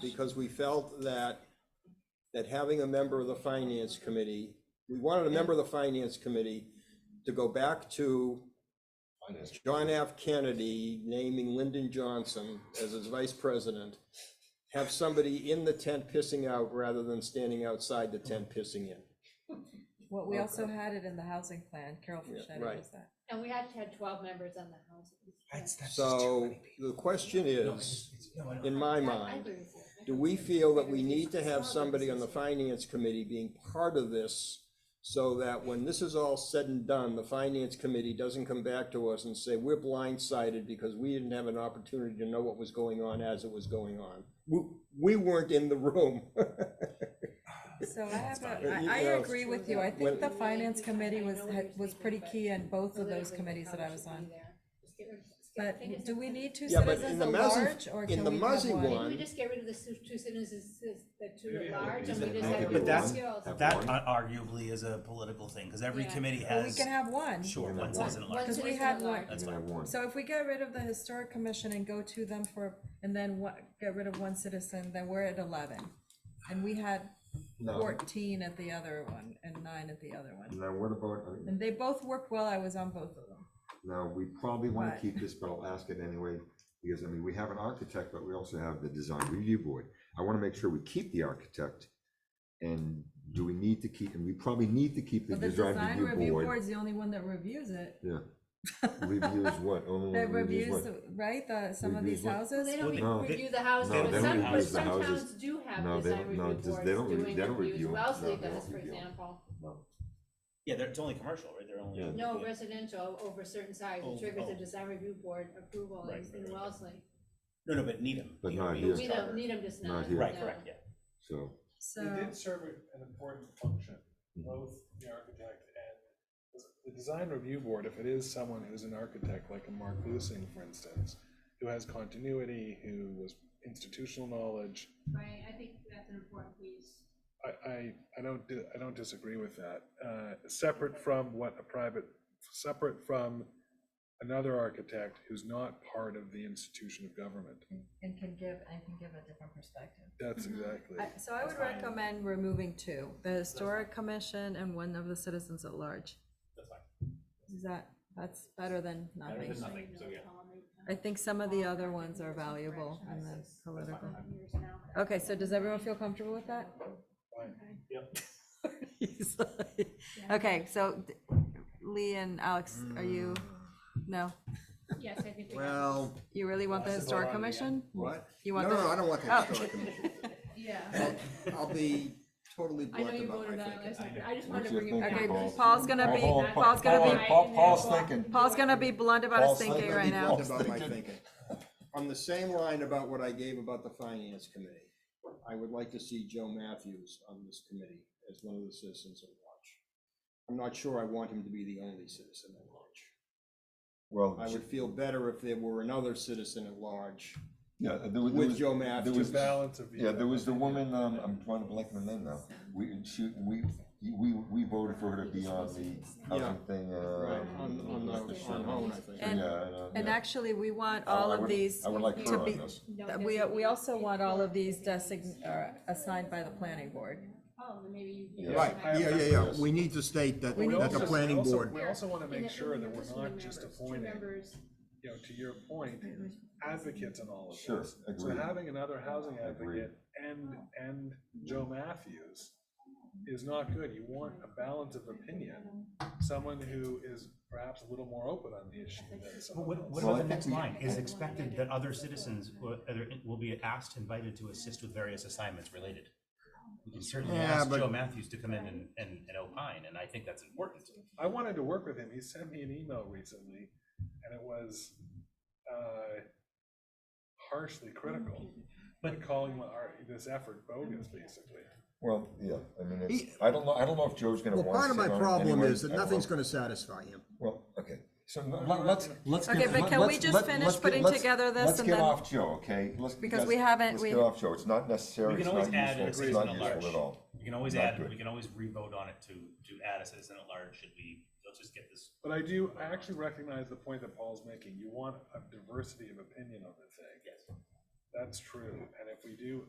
because we felt that, that having a member of the finance committee, we wanted a member of the finance committee to go back to John F. Kennedy naming Lyndon Johnson as his vice president, have somebody in the tent pissing out rather than standing outside the tent pissing in. Well, we also had it in the housing plan, Carol Yeah, Fischetti right. was that. And we actually had twelve members on the housing. That's, that's just too So many people. the question No, is, it's- it's- no, I know. in my Yeah, I mind, agree with you. I Do don't we think feel that it's we gonna be need to have solid somebody on the consensus. finance committee being part of this? So that when this is all said and done, the finance committee doesn't come back to us and say, we're blindsided because we didn't have an opportunity to know what was going on as it was going on. We, we weren't in the room. So I have fine. a, I, You I know, agree with you. I when- think the finance committee was, I know had- what was you're pretty thinking, key in both of Politically, those they committees that probably I was should be on. there. Just get rid of- just get- But I think it's do a- we need two Yeah, but citizens in at the Mazzy- large, or in can the we have Mazzy one? one- Maybe we just get rid of the su- two sentences, the two Maybe at have a large, and reason. we just Make have. it But that's, one. skills. that uh, one. arguably is a political thing, because every Yeah. committee Well, we has, can have one. sure, One- one citizen at One large. Because we citizen had at large. one- That's And I fine. warned. So if we get rid of the historic commission and go to them for, and then what, get rid of one citizen, then we're at eleven. And we had No, fourteen at the other one and nine at the other one. now what about, uh, And they both worked well. I was on both of them. now, we probably wanna What? keep this, but I'll ask it anyway, because, I mean, we have an architect, but we also have the design review board. I wanna make sure we keep the architect, and do we need to keep, and we probably need to keep the But the design design review board. Board's the only one that reviews it. Yeah, reviews what, only That one reviews reviews, what? right, the, some of Reviews these what? Well, houses. they don't No, re- they- review the houses, no, but they don't some, but review the some houses. towns do No, have they design don't- no, review just- they don't boards re- doing they don't reviews, review 'em. Wellesley No, they does, don't for review 'em. example. No. Yeah, they're, it's only commercial, right, they're only. Yeah. No residential over a certain size, Oh, it triggers oh. a design review board approval Right, in, right, in right. Wellesley. No, no, but Needham. But you know, not Needham's We don't charter. need them just now. Not here. Right, no. correct, yeah. So, So, They did serve a- an important function, Mhm. both the architect and the design review board, if it is someone who's an architect, like a Mark Lusing, for instance, who has continuity, who was institutional knowledge, Right, I think that's an important piece. I, I, I don't, di- I don't disagree with that. Uh, Separate from what a private, separate from another architect who's not part of the institution of government. and can give, and can give a different perspective. That's Mm-hmm. exactly. I- So I would recommend removing two, the historic commission and one of the citizens at large. That's fine. Is that, that's better than Better than nothing. nothing. Oh, so yeah. I think some of the other ones are valuable in the uh, political. Okay, so does everyone feel comfortable with that? He's like- Okay, so d- Lee and Alex, are you, no, Yes, I think we have, Well, you really want the historic commission? what? You No, want no, the, I don't want Oh. that historic commission. yeah. I'll- I'll be totally I know blunt you about voted my on thinking. this, one. I just We're wanted to just bring it back. okay, thinking Paul's- Paul's gonna be, Paul- Paul's gonna be, Paul- Paul's thinking. Paul's gonna be blunt about his Paul's thinking thinking. right now. I'll be blunt about my thinking. On the same line about what I gave about the finance committee, I would like to see Joe Matthews on this committee as one of the citizens at large. I'm not sure I want him to be the only citizen at large. well, I would feel better if there were another citizen at large yeah, there was. there with was- Joe there Matthews. was- The balance of. Yeah, there was the woman, um, I'm trying to blank on the name now, we, she, we, we, we voted for her to be on the housing thing, uh. Right, on, on the, on Hone, I think. Yeah, And- know, And yeah. actually, we want I- all I of would- these, I would like to her on be- this. No, that it we, doesn't we mean- also want all of these design, uh, assigned by the planning board. Oh, then maybe you. Yeah. Right, yeah, yeah, yeah, we need to state that, We need that to- the planning also- board. We also want to And make that sure that remember we're two not members, just two appointing members. you know, to your point, advocates in all of Sure, this. So agreed. having another housing Agreed. advocate and, and Joe Matthews is not good. You want a balance of opinion, someone who is perhaps a little more open on the issue than Well, someone What, what Well, else. I about the think next we- line? Is expected that other citizens will, other- will be asked, invited to assist with various assignments related. We can certainly Yeah, ask but- Joe Matthews to come in and, and, and opine, and I think that's important. I wanted to work with him. He sent me an email recently and it was, uh, harshly critical, but But- calling my- our, this effort bogus, basically. Well, yeah, I mean, it's, He- I don't know, I don't know if Joe's gonna Well, want to part of my sit on it problem anyway. is that I don't know. nothing's gonna satisfy him. Well, okay, so let- let's, let's. Okay, get- but can let's- we just let's- finish let's get- putting let's- together this Let's and get then- off Joe, okay? Let's- Because guys, we haven't- Let's we- get off Joe, it's not necessary, We it's can not always add useful, a it's citizen not at useful at large. all. We can always Not add, good. we can always revote on it to, to add a citizen at large, should we, let's just get this. But I do, I actually recognize the point that Paul's making. You want a diversity of opinion on the thing. Yes. That's true, and if we do,